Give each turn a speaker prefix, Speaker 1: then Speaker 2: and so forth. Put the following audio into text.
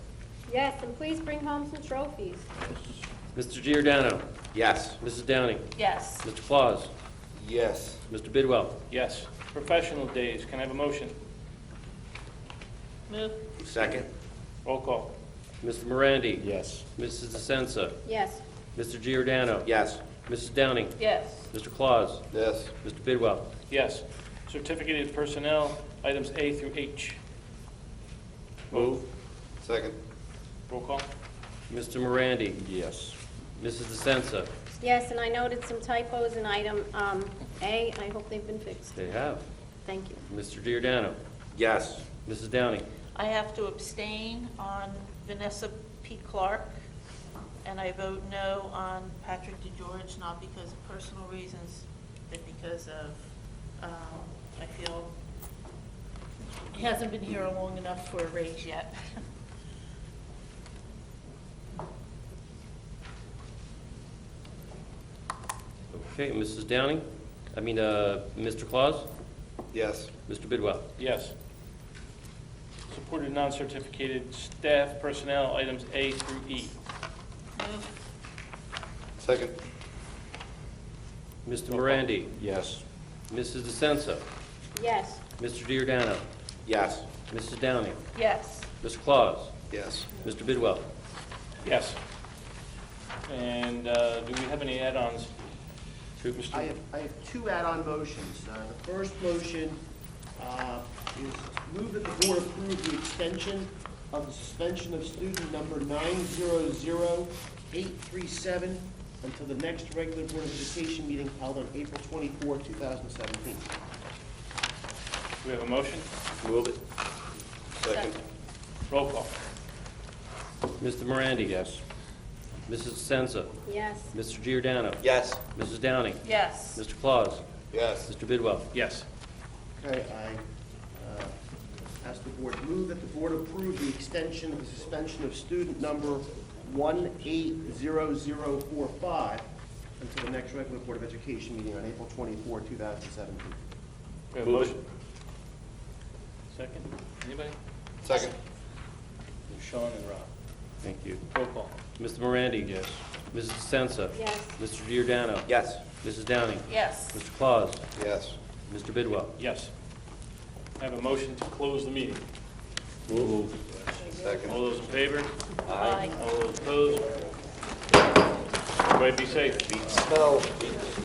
Speaker 1: Yes, and please bring home some trophies.
Speaker 2: Mr. Giordano.
Speaker 3: Yes.
Speaker 2: Mrs. Downing.
Speaker 4: Yes.
Speaker 2: Mr. Claus.
Speaker 3: Yes.
Speaker 2: Mr. Bidwell.
Speaker 5: Yes. Professional days, can I have a motion?
Speaker 4: Move.
Speaker 3: Second?
Speaker 5: Roll call.
Speaker 2: Mr. Morandi.
Speaker 3: Yes.
Speaker 2: Mrs. DeSensa.
Speaker 1: Yes,
Speaker 2: Mr. Giordano.
Speaker 3: Yes.
Speaker 2: Mrs. Downing.
Speaker 4: Yes.
Speaker 2: Mr. Claus.
Speaker 3: Yes.
Speaker 2: Mr. Bidwell.
Speaker 5: Yes. Certificated personnel, items A through H. Move.
Speaker 3: Second?
Speaker 5: Roll call.
Speaker 2: Mr. Morandi.
Speaker 3: Yes.
Speaker 2: Mrs. DeSensa.
Speaker 1: yes, and I noted some typos in item um, A. I hope they've been fixed.
Speaker 2: They have.
Speaker 1: Thank you.
Speaker 2: Mr. Giordano.
Speaker 3: Yes.
Speaker 2: Mrs. Downing.
Speaker 4: I have to abstain on Vanessa P. Clark, and I vote no on Patrick DeGeorge, not because of personal reasons, but because of, um, I feel he hasn't been here long enough for a raise yet.
Speaker 2: Okay, Mrs. Downing. I mean, uh, Mr. Claus.
Speaker 3: Yes.
Speaker 2: Mr. Bidwell.
Speaker 5: Yes. Supported non-certificated staff personnel, items A through E.
Speaker 4: Move.
Speaker 3: Second?
Speaker 2: Mr. Morandi.
Speaker 3: Yes.
Speaker 2: Mrs. DeSensa.
Speaker 1: Yes,
Speaker 2: Mr. Giordano.
Speaker 3: Yes.
Speaker 2: Mrs. Downing.
Speaker 4: Yes.
Speaker 2: Mr. Claus.
Speaker 3: Yes.
Speaker 2: Mr. Bidwell.
Speaker 5: Yes. And uh, do we have any add-ons? to Mr.
Speaker 6: I have, I have two add-on motions. Uh, The first motion uh, is move that the board approve the extension of the suspension of student number 900837 until the next regular Board of Education meeting held on April 24, 2017.
Speaker 5: Do we have a motion?
Speaker 3: Move it. Second?
Speaker 5: Roll call.
Speaker 2: Mr. Morandi. Yes. Mrs. DeSensa.
Speaker 1: yes,
Speaker 2: Mr. Giordano.
Speaker 3: Yes.
Speaker 2: Mrs. Downing.
Speaker 4: Yes.
Speaker 2: Mr. Claus.
Speaker 3: Yes.
Speaker 2: Mr. Bidwell.
Speaker 5: Yes.
Speaker 6: Okay, I uh, ask the board, move that the board approve the extension of the suspension of student number 180045 until the next regular Board of Education meeting on April 24, 2017.
Speaker 5: We have a motion? Second? Anybody?
Speaker 3: Second?
Speaker 5: Sean and Rob.
Speaker 2: Thank you.
Speaker 5: Roll call.
Speaker 2: Mr. Morandi. Yes. Mrs. DeSensa.
Speaker 1: yes,
Speaker 2: Mr. Giordano.
Speaker 3: Yes.
Speaker 2: Mrs. Downing.
Speaker 4: Yes.
Speaker 2: Mr. Claus.
Speaker 3: Yes.
Speaker 2: Mr. Bidwell.
Speaker 5: Yes. I have a motion to close the meeting.
Speaker 3: Move.
Speaker 5: All
Speaker 3: Second?
Speaker 5: those in favor?
Speaker 4: Aye.
Speaker 5: All those opposed? Everybody be safe.
Speaker 3: Spell.